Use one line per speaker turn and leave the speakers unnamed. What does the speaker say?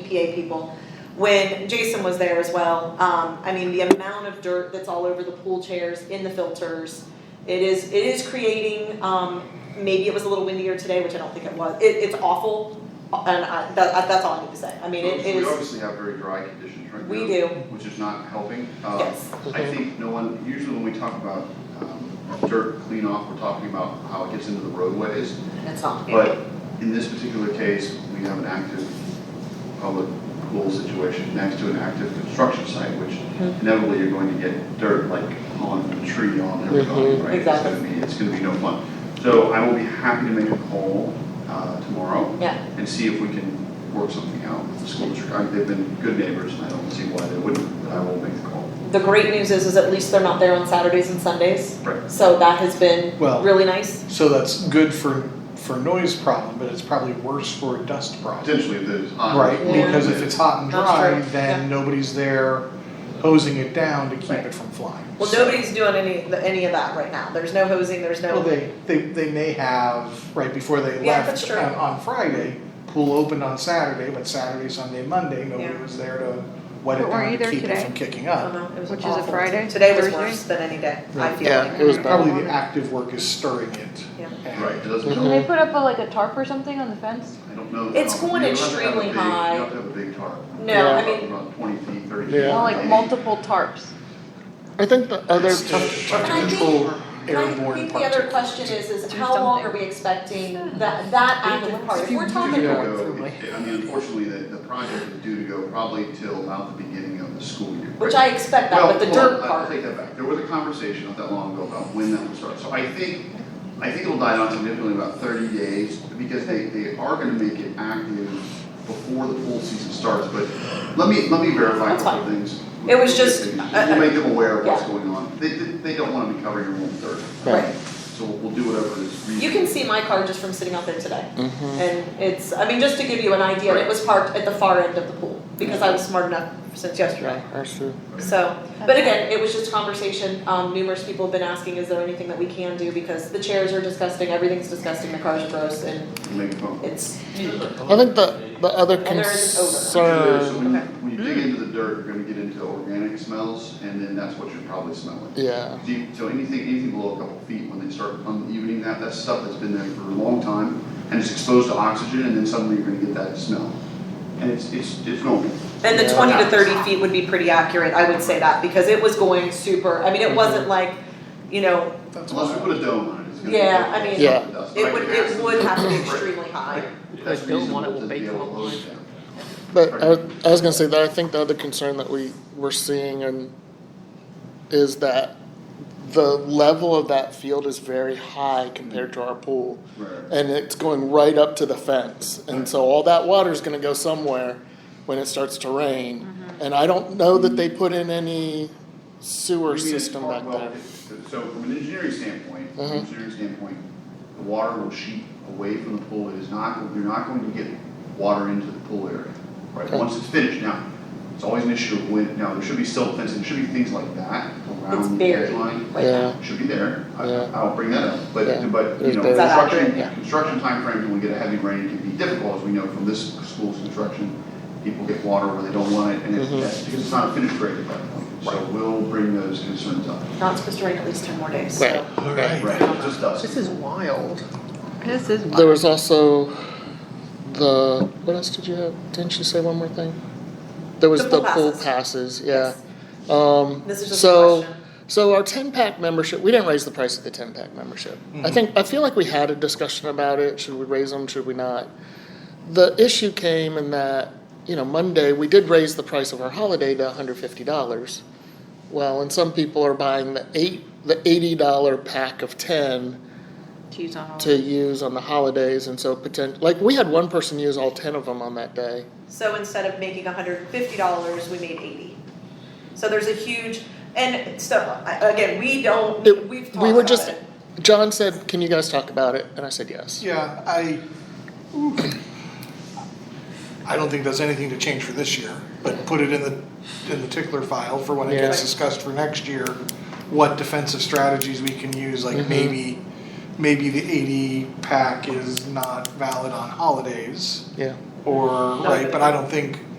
EPA people, when Jason was there as well, um, I mean, the amount of dirt that's all over the pool chairs, in the filters, it is, it is creating, um, maybe it was a little windier today, which I don't think it was, it, it's awful, and I, that, that's all I need to say, I mean, it
We
is,
obviously have very dry conditions right now.
we do,
Which is not helping. Uh,
yes,
I think no one, usually when we talk about um, dirt cleanoff, we're talking about how it gets into the roadways.
it's not.
But in this particular case, we have an active public pool situation next to an active construction site, which
Mhm.
inevitably you're going to get dirt like on a tree on everybody,
Mhm.
right?
Mm-hmm.
It's
Exactly.
gonna be, it's gonna be no fun. So I will be happy to make a call uh, tomorrow
Yeah,
and see if we can work something out with the school district. I mean, They've been good neighbors, and I don't see why they wouldn't, but I will make the call.
the great news is, is at least they're not there on Saturdays and Sundays,
Right.
so that has been
Well-
really nice.
So that's good for, for noise problem, but it's probably worse for a dust problem.
Potentially, if there's.
Right,
Yeah.
because if it's hot and
That's
dry,
true, yeah.
then nobody's there hosing it down to keep
Right.
it from flying.
Well,
So-
nobody's doing any any of that right now. There's no hosing. There's no.
Well, they, they, they may have, right before they
Yeah, that's
left
true.
on, on Friday, pool opened on Saturday, but Saturday, Sunday, Monday, nobody
Yeah. Uh-huh.
was there to wet it
But weren't
down
you
and
there
keep it
today?
from kicking
I don't
up.
know. It was
Which is a
awful.
Friday?
Today was
Thursday?
worse than any day. I
Right.
feel
Yeah,
like.
it was bad.
Probably the active work is stirring it.
Yeah.
And-
Right, it doesn't
Mhm.
Can
help.
they put up a, like a tarp or something on the fence?
I don't know.
It's
Um,
going
you don't have to have a
extremely
big-
high.
You have to have a big tarp.
No,
Yeah.
I mean,
About twenty feet, thirty feet.
Yeah.
Well,
maybe.
like multiple tarps.
I think the other,
It's tough, tough
And
to
I think-
control
I
airborne
think the other
particles.
question is, is
Do
how long
something.
are we expecting that that active part? If we're
Due to
talking,
Yeah.
go,
Yeah.
it- I mean, unfortunately, the, the project is due to go probably till about the beginning of the school year.
which I expect that, but the
Well,
dirt
hold on, I'll
part.
take that back, there was a conversation not that long ago about when that would start, so I think, I think it'll die down significantly in about thirty days, because they, they are gonna make it active before the pool season starts, but let me, let me verify a
That's
couple things.
It was just- uh,
We'll make them aware of what's
Yeah.
going on, they, they, they don't wanna be covering your own dirt.
Right.
So we'll do whatever is reasonable.
You can see my car just from sitting out there today,
Mm-hmm.
and it's. I mean, just to give you an idea, it was parked at the far end of the pool because I was smart enough since yesterday.
I see.
So, but again, it was just conversation, um, numerous people have been asking, is there anything that we can do, because the chairs are disgusting, everything's disgusting, the cars are gross, and
Make a phone call.
it's,
I think the, the other
And there is
So
concern,
when you,
Uh, Okay.
when you dig into the dirt, you're gonna get into organic smells, and then that's what you're probably smelling.
yeah,
Deep, so anything, anything below a couple feet, when they start unevening that, that's stuff that's been there for a long time, and it's exposed to oxygen, and then suddenly you're gonna get that smell. And it's, it's, it's normal.
and the
Yeah.
twenty to thirty feet would be pretty accurate, I would say that, because it was going super, I mean,
Mhm.
it wasn't like, you know,
That's
Unless we
why,
put a dome on it, it's gonna be.
Yeah, I mean,
Yeah.
it would, it would have to be extremely high.
That's reasonable to be able to load it down.
but I, I was gonna say that I think the other concern that we were seeing and is that the level of that field is very high compared to our pool.
Right.
and it's going right up to the fence. And so all that water's gonna go somewhere when it starts to rain.
Mm-hmm.
And I don't know that they put in any sewer
You mean it's
system
part-
back
well,
there.
it- So from an engineering standpoint, from an
Mhm.
engineering standpoint, the water will sheet away from the pool, it is not, you're not going to get water into the pool area, right,
Okay.
once it's finished, now, it's always an issue of when, now, there should be silt fencing, there should be things like that
It's
around the
buried.
edge line.
Right.
Um, Yeah,
Should be there, I,
Yeah.
I'll bring that up,
Yeah.
but, but, you
It's
know,
buried. Is
that
construction,
accurate? Yeah.
construction timeframe, when we get a heavy rain, it can be difficult, as we know from this school's construction. People get water where they don't want it, and it,
Mhm.
that's because it's not a finished grade at that point, so we'll bring those concerns up.
Not supposed to rain at least ten more days,
right,
so.
right.
Right, just us.
is wild.
This is.
There was also the, what else did you have? Didn't you say one more thing? There was
The
the
pool
pool
passes.
passes, yeah. Um,
This is just a
so.
question.
So our ten pack membership, we didn't raise the price of the ten pack membership. I think I feel like we had a discussion about it. Should we raise them? Should we not? The issue came in that you know Monday we did raise the price of our holiday to one hundred fifty dollars. Well, and some people are buying the eight the eighty dollar pack of ten
Cheese on all.
to use on the holidays, and so potent like we had one person use all ten of them on that day.
So instead of making hundred and fifty dollars, we made eighty. So there's a huge, and so, I- again, we don't,
It-
we've talked
we were
about
just
it.
John said, "Can you guys talk about it?" And I said, "Yes."
Yeah, I, I don't think that's anything to change for this year, but put it in the, in the tickler file for when it gets
Yeah.
discussed for next year, what defensive strategies we can use, like
Mhm.
maybe, maybe the eighty pack is not valid on holidays,
Yeah.
or, right, but I don't think.